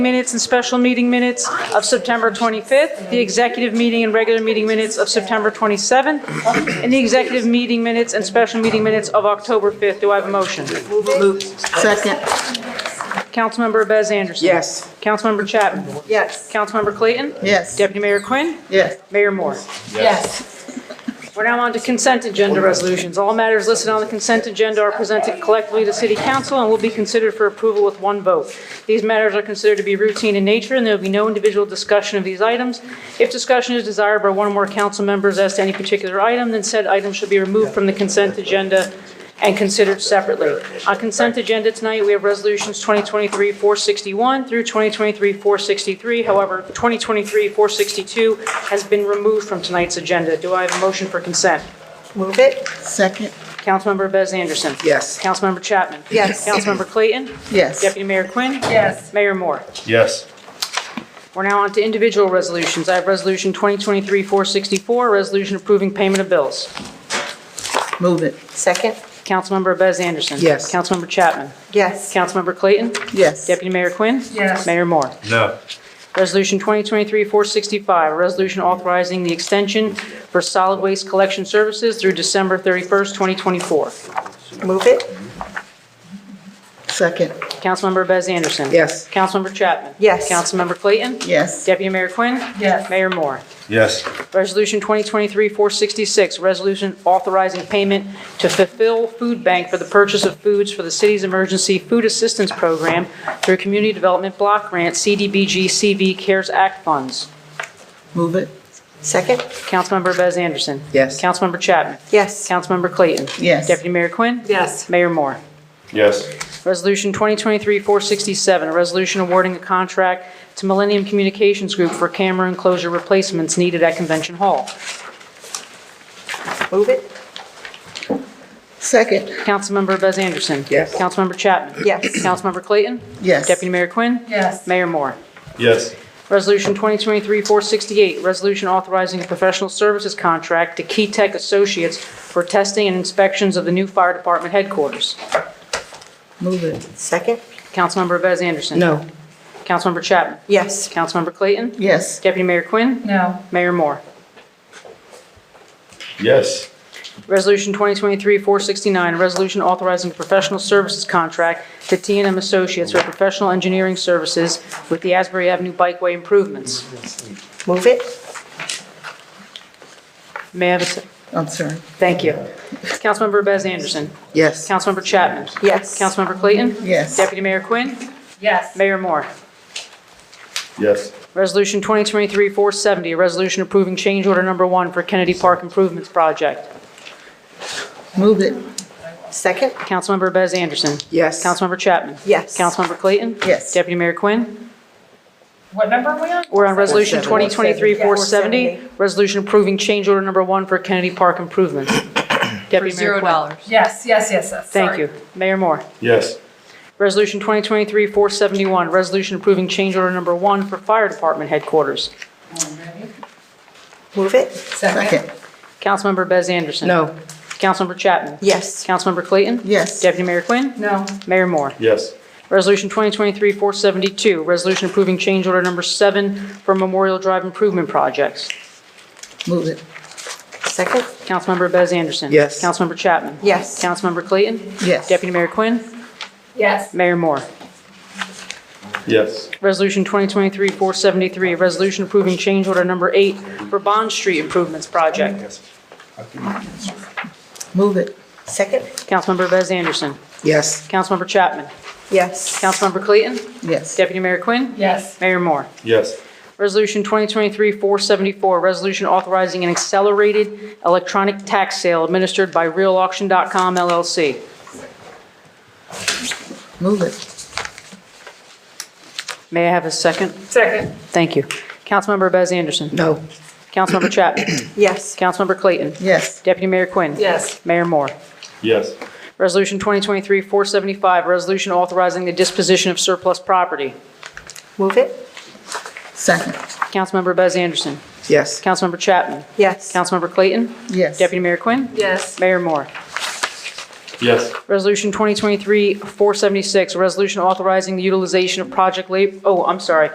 minutes and special meeting minutes of September 25th, the executive meeting and regular meeting minutes of September 27th, and the executive meeting minutes and special meeting minutes of October 5th. Do I have a motion? Second, Councilmember Bez Anderson. yes. Councilmember Chapman. Yes. Councilmember Clayton. Yes. Deputy Mayor Quinn. Yes. Mayor Moore. Yes. We're now on to consent agenda resolutions. All matters listed on the consent agenda are presented collectively to City Council and will be considered for approval with one vote. These matters are considered to be routine in nature, and there will be no individual discussion of these items. If discussion is desired by one or more council members as to any particular item, then said item should be removed from the consent agenda and considered separately. On consent agenda tonight, we have resolutions 2023-461 through 2023-463. However, 2023-462 has been removed from tonight's agenda. Do I have a motion for consent? Move it. Second, Councilmember Bez Anderson. Yes. Councilmember Chapman. Yes. Councilmember Clayton. yes. Deputy Mayor Quinn. Yes. Mayor Moore. Yes. We're now on to individual resolutions. I have Resolution 2023-464, a resolution approving payment of bills. Move it, Second? Councilmember Bez Anderson. Yes. Councilmember Chapman. Yes. Councilmember Clayton. yes. Deputy Mayor Quinn. Yes. Mayor Moore. No. Resolution 2023-465, a resolution authorizing the extension for solid waste collection services through December 31st, 2024. Move it? Second, Councilmember Bez Anderson. Yes. Councilmember Chapman. Yes. Councilmember Clayton. yes. Deputy Mayor Quinn. Yes. Mayor Moore. Yes. Resolution 2023-466, resolution authorizing payment to fulfill food bank for the purchase of foods for the city's emergency food assistance program through Community Development Block Grant CDBG CV CARES Act funds. Move it, Second? Councilmember Bez Anderson. Yes. Councilmember Chapman. Yes. Councilmember Clayton. Yes. Deputy Mayor Quinn. Yes. Mayor Moore. Yes. Resolution 2023-467, a resolution awarding a contract to Millennium Communications Group for camera enclosure replacements needed at Convention Hall. Move it? second, Councilmember Bez Anderson. Yes. Councilmember Chapman. Yes. Councilmember Clayton. yes. Deputy Mayor Quinn. Yes. Mayor Moore. Yes. Resolution 2023-468, resolution authorizing a professional services contract to Key Tech Associates for testing and inspections of the new fire department headquarters. Move it, Second? Councilmember Bez Anderson. no, Councilmember Chapman. Yes. Councilmember Clayton. yes. Deputy Mayor Quinn. No. Mayor Moore. Yes. Resolution 2023-469, a resolution authorizing a professional services contract to t and m Associates for professional engineering services with the Asbury Avenue Bikeway improvements. Move it? May I have a, se- I'm sorry, thank you. Councilmember Bez Anderson. yes. Councilmember Chapman. Yes. Councilmember Clayton. Yes. Deputy Mayor Quinn. Yes. Mayor Moore. Yes. Resolution 2023-470, a resolution approving change order number one for Kennedy Park Improvements Project. Move it, Second? Councilmember Bez Anderson. yes. Councilmember Chapman. Yes. Councilmember Clayton. Yes. Deputy Mayor Quinn. What number are we on? We're on Resolution 470. 2023-470, resolution approving change order number one for Kennedy Park improvements. Deputy Mayor Quinn. Yes, yes, yes, yes. Thank sorry. you. Mayor Moore. Yes. Resolution 2023-471, resolution approving change order number one for fire department headquarters. Move it? Second. Second, Councilmember Bez Anderson. no, Councilmember Chapman. Yes. Councilmember Clayton. yes. Deputy Mayor Quinn. No. Mayor Moore. Yes. Resolution 2023-472, resolution approving change order number seven for Memorial Drive improvement projects. Move it, Second? Councilmember Bez Anderson. Yes. Councilmember Chapman. Yes. Councilmember Clayton. yes. Deputy Mayor Quinn. Yes. Mayor Moore. Yes. Resolution 2023-473, a resolution approving change order number eight for Bond Street Improvements Project. Move it, Second? Councilmember Bez Anderson. yes. Councilmember Chapman. Yes. Councilmember Clayton. Yes. Deputy Mayor Quinn. Yes. Mayor Moore. Yes. Resolution 2023-474, a resolution authorizing an accelerated electronic tax sale administered by RealAuction.com LLC. Move it, May I have a second? Second. Thank you. Councilmember Bez Anderson. no, Councilmember Chapman. Yes. Councilmember Clayton. yes. Deputy Mayor Quinn. Yes. Mayor Moore. Yes. Resolution 2023-475, a resolution authorizing the disposition of surplus property. Move it? Second, Councilmember Bez Anderson. yes. Councilmember Chapman. Yes. Councilmember Clayton. Yes. Deputy Mayor Quinn. Yes. Mayor Moore. Yes. Resolution 2023-476, a resolution authorizing the utilization of project lab, oh, I'm sorry,